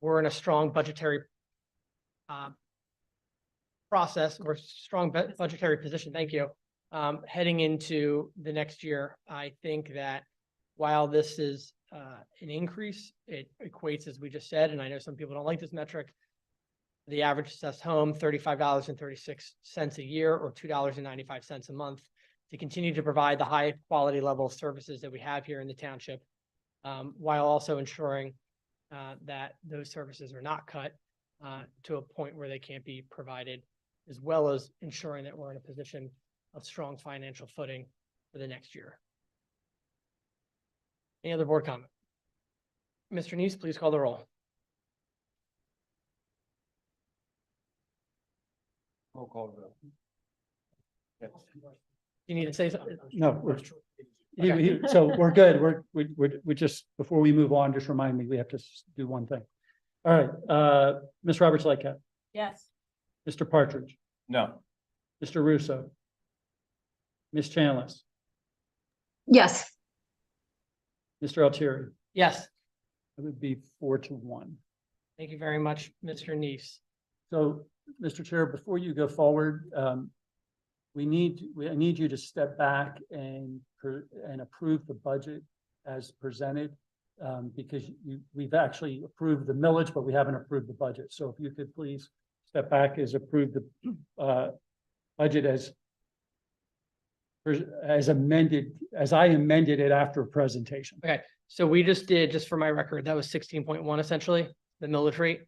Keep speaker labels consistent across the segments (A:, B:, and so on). A: we're in a strong budgetary um, process, we're strong bu- budgetary position, thank you. Um, heading into the next year, I think that while this is uh, an increase, it equates, as we just said, and I know some people don't like this metric, the average assessed home, thirty-five dollars and thirty-six cents a year or two dollars and ninety-five cents a month to continue to provide the high quality level of services that we have here in the township, um, while also ensuring uh, that those services are not cut uh, to a point where they can't be provided, as well as ensuring that we're in a position of strong financial footing for the next year. Any other board comment? Mr. Neese, please call the roll.
B: Roll call vote.
A: You need to say something.
C: No, we're, he-
A: Okay.
C: he- so we're good. We're, we, we, we just, before we move on, just remind me, we have to s- do one thing. All right, uh, Ms. Roberts Lightcap,
D: Yes.
C: Mr. Partridge,
B: No.
C: Mr. Russo. Ms. Chanlis,
E: Yes,
C: Mr. Altieri,
A: Yes,
C: it would be four to one.
A: thank you very much, Mr. Neese.
C: So, Mr. Chair, before you go forward, um, we need, we, I need you to step back and, per- and approve the budget as presented. Um, because you, we've actually approved the millage, but we haven't approved the budget. So if you could please step back as approve the, uh, budget as pres- as amended, as I amended it after presentation.
A: So we just did, just for my record, that was sixteen point one essentially, the millage rate.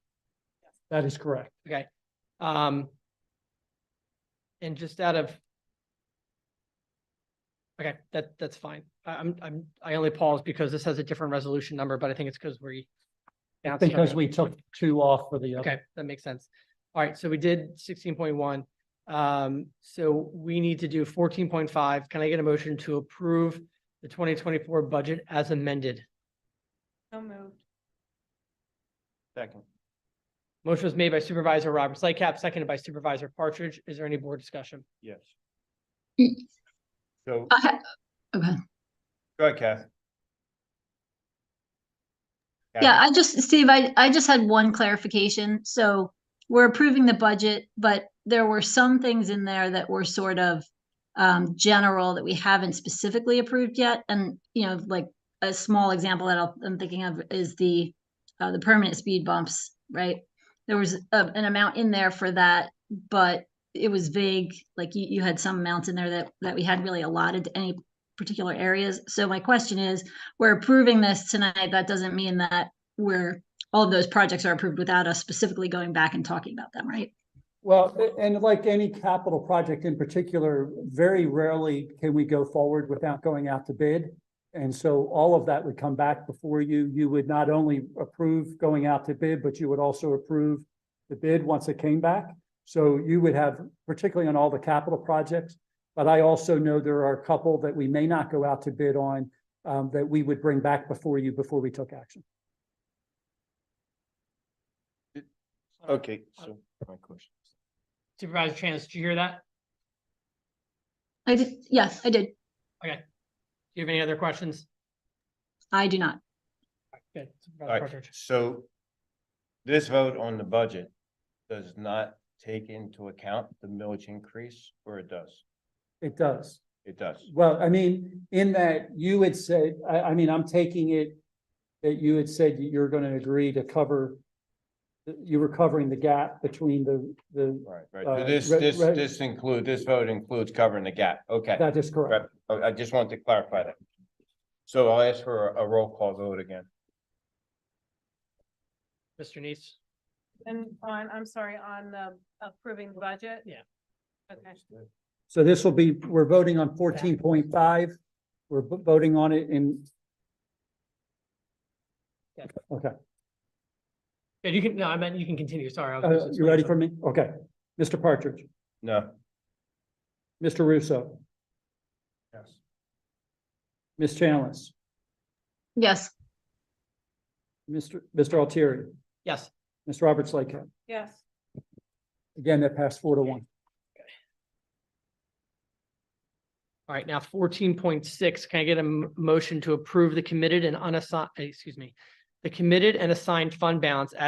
C: That is correct.
A: Okay. Um. And just out of. Okay, that, that's fine. I- I'm, I'm, I only paused because this has a different resolution number, but I think it's because we. bounced something
C: Because we took two off for the other.
A: Okay, that makes sense. All right, so we did sixteen point one. Um, so we need to do fourteen point five. Can I get a motion to approve the twenty twenty-four budget as amended?
D: So moved.
B: Second.
A: Motion was made by Supervisor Roberts Lightcap, seconded by Supervisor Partridge. Is there any board discussion?
B: Yes.
E: Y-
B: So,
E: I ha- okay.
B: go ahead, Kath.
E: yeah, I just, Steve, I, I just had one clarification. So we're approving the budget, but there were some things in there that were sort of um, general that we haven't specifically approved yet. And, you know, like a small example that I'll- I'm thinking of is the, uh, the permanent speed bumps, right? There was a- an amount in there for that, but it was vague. Like you, you had some amounts in there that, that we hadn't really allotted to any particular areas. So my question is, we're approving this tonight, that doesn't mean that we're, all of those projects are approved without us specifically going back and talking about them, right?
C: Well, a- and like any capital project in particular, very rarely can we go forward without going out to bid. And so all of that would come back before you. You would not only approve going out to bid, but you would also approve the bid once it came back. So you would have, particularly on all the capital projects. But I also know there are a couple that we may not go out to bid on, um, that we would bring back before you, before we took action.
B: Okay, so my question.
A: Supervisor Chance, did you hear that?
E: I did, yeah, I did.
A: Do you have any other questions?
E: I do not.
A: Good. Supervisor
B: All right,
A: Partridge.
B: so this vote on the budget does not take into account the millage increase, or it does?
C: It does.
B: It does.
C: Well, I mean, in that you had said, I, I mean, I'm taking it that you had said you're gonna agree to cover, that you were covering the gap between the, the,
B: Right, right.
C: Uh,
B: So This,
C: re-
B: this,
C: re-
B: this include, this vote includes covering the gap. Okay.
C: that is correct.
B: Right. Oh, I just wanted to clarify that. So I'll ask for a a roll call vote again.
A: Mr. Neese?
D: And on, I'm sorry, on the approving the budget?
A: Yeah.
D: Okay.
C: So this will be, we're voting on fourteen point five. We're vo- voting on it in,
A: Yeah, you can, no, I meant you can continue. Sorry. I was-
C: uh, you ready for me? Okay. Mr. Partridge,
B: No.
C: Mr. Russo,
B: Yes.
C: Ms. Chalice,
E: Yes,
C: Mr. Mr. Altieri,
A: Yes,
C: Ms. Roberts Lakehead.
D: Yes.
C: Again, that passed four to one.
A: all right, now fourteen point six, can I get a m- motion to approve the committed and unassigned, excuse me, the committed and assigned fund balance